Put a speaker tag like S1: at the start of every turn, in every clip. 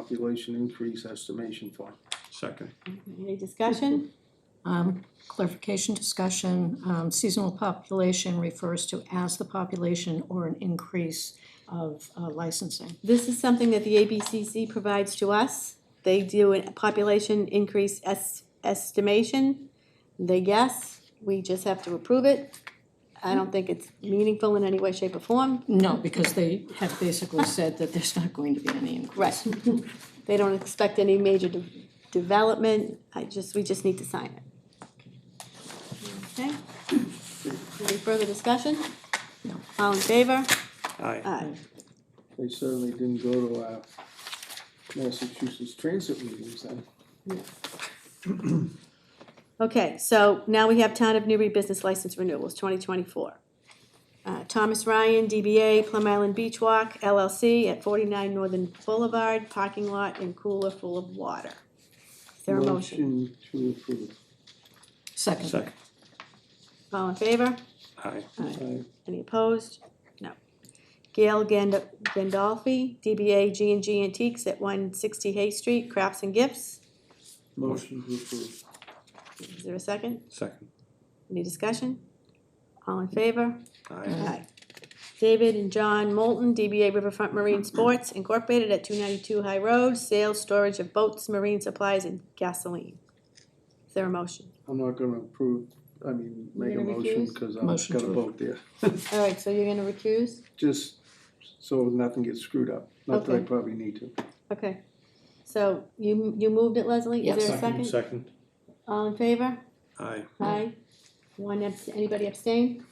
S1: population increase estimation fund.
S2: Second,
S3: Any discussion?
S4: Um, clarification discussion, um, seasonal population refers to as the population or an increase of uh, licensing.
S3: This is something that the ABCC provides to us. They do a population increase es- estimation. They guess, we just have to approve it. I don't think it's meaningful in any way, shape, or form.
S4: No, because they have basically said that there's not going to be any increase.
S3: Right. They don't expect any major de- development. I just, we just need to sign it. Okay? Any further discussion?
S4: No.
S3: All in favor?
S2: aye,
S3: Aye.
S1: They certainly didn't go to our Massachusetts transit meetings then.
S3: Okay, so now we have Town of Newbury Business License Renewals, twenty twenty-four. Uh, Thomas Ryan, DBA Plum Island Beach Walk LLC at forty-nine Northern Boulevard, parking lot and cooler full of water. Is there a
S1: Motion
S3: motion?
S1: to approve.
S4: Second,
S2: second,
S3: All in favor?
S2: aye,
S1: Aye.
S3: Any opposed? No. Gail Gand- Gandolfi, DBA G and G Antiques at one sixty Hay Street, Crafts and Gifts.
S1: Motion to approve.
S3: Is there a second?
S2: second,
S3: Any discussion? All in favor?
S2: aye,
S3: Aye. David and John Moulton, DBA Riverfront Marine Sports Incorporated at two ninety-two High Road, sales, storage of boats, marine supplies, and gasoline. Is there a motion?
S1: I'm not gonna approve, I mean,
S3: You're
S1: make a
S3: gonna
S1: motion,
S3: recuse?
S1: cause I'm
S4: Motion
S1: gonna
S4: to-
S1: vote there.
S3: All right, so you're gonna recuse?
S1: Just so nothing gets screwed up, not that I
S3: Okay.
S1: probably need to.
S3: Okay. So you, you moved it, Leslie? Is
S4: Yes.
S3: there a second?
S2: second,
S3: All in favor?
S2: aye,
S3: Aye. One, abs- anybody abstain?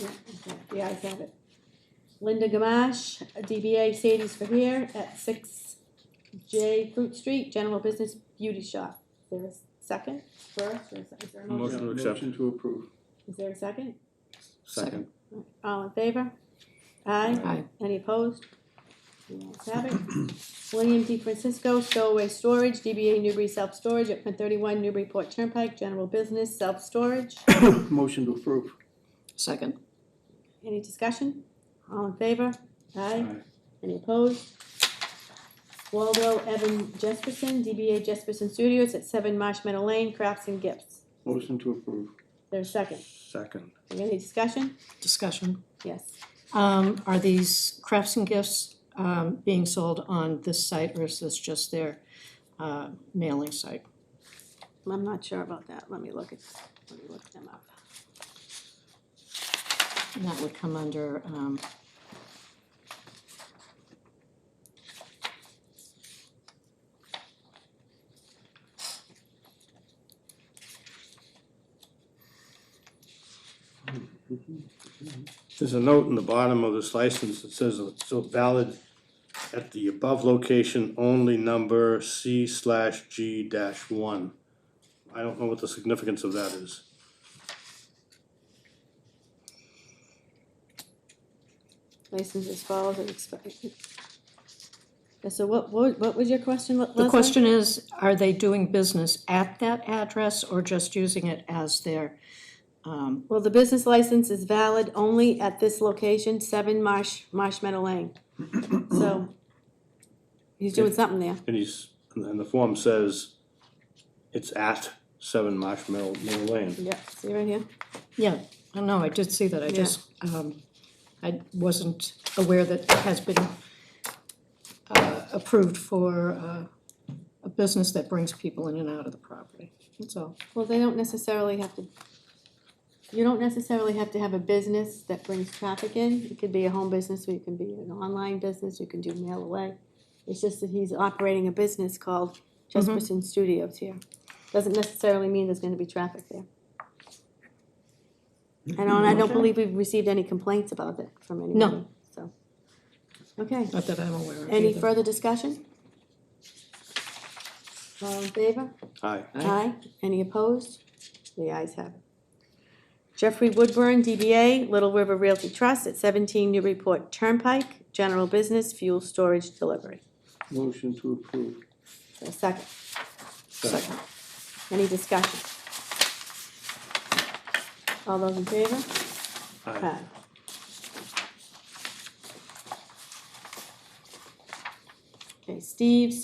S3: Yeah, okay, The ayes have it. Linda Gamache, DBA Sadie's for here at six J Fruit Street, General Business Beauty Shop. Is there a second first, or is is there a motion?
S2: Motion to accept.
S1: Motion to approve.
S3: Is there a second?
S2: second,
S3: All in favor? Aye.
S4: aye,
S3: Any opposed? The ayes have it. William D. Francisco, Stowaway Storage, DBA Newbury Self Storage at one thirty-one Newburyport Turnpike, General Business Self Storage.
S1: Motion to approve.
S4: second,
S3: Any discussion? All in favor? Aye. Any opposed? Waldo Evan Jesperson, DBA Jesperson Studios at Seven Marsh Meadow Lane, Crafts and Gifts.
S1: Motion to approve.
S3: There's a second.
S2: second,
S3: Any discussion?
S4: discussion.
S3: Yes.
S4: Um, are these crafts and gifts, um, being sold on this site or is this just their, uh, mailing site?
S3: I'm not sure about that. Let me look at, let me look them up.
S4: And that would come under, um,
S2: There's a note in the bottom of this license that says it's still valid at the above location only number C slash G dash one. I don't know what the significance of that is.
S3: License as follows as expected. And So what, what, what was your question, Le- Leslie?
S4: The question is, are they doing business at that address or just using it as their, um,
S3: Well, the business license is valid only at this location, Seven Marsh, Marsh Meadow Lane. So he's doing something there.
S2: And he's, and the form says it's at seven Marsh Mill, Mill Lane.
S3: Yep, see right here?
S4: yeah, I know, I did see that, I just, um, I wasn't aware that it has been uh, approved for, uh, a business that brings people in and out of the property, that's all.
S3: Well, they don't necessarily have to, you don't necessarily have to have a business that brings traffic in. It could be a home business, or you can be an online business, you can do mail away. It's just that he's operating a business called Jesperson Studios here. Doesn't necessarily mean there's gonna be traffic there. And I don't believe we've received any complaints about it from anybody, so. Okay,
S4: Not that I'm aware of either.
S3: any further discussion? All in favor?
S2: Aye,
S3: Aye. Any opposed? The ayes have it. Jeffrey Woodburn, DBA Little River Realty Trust at 17 Newburyport Turnpike, general business, fuel storage delivery.
S1: Motion to approve.
S3: So a Second.
S2: second,
S3: Any discussion? All those in favor?
S2: aye,
S3: Okay, Steve's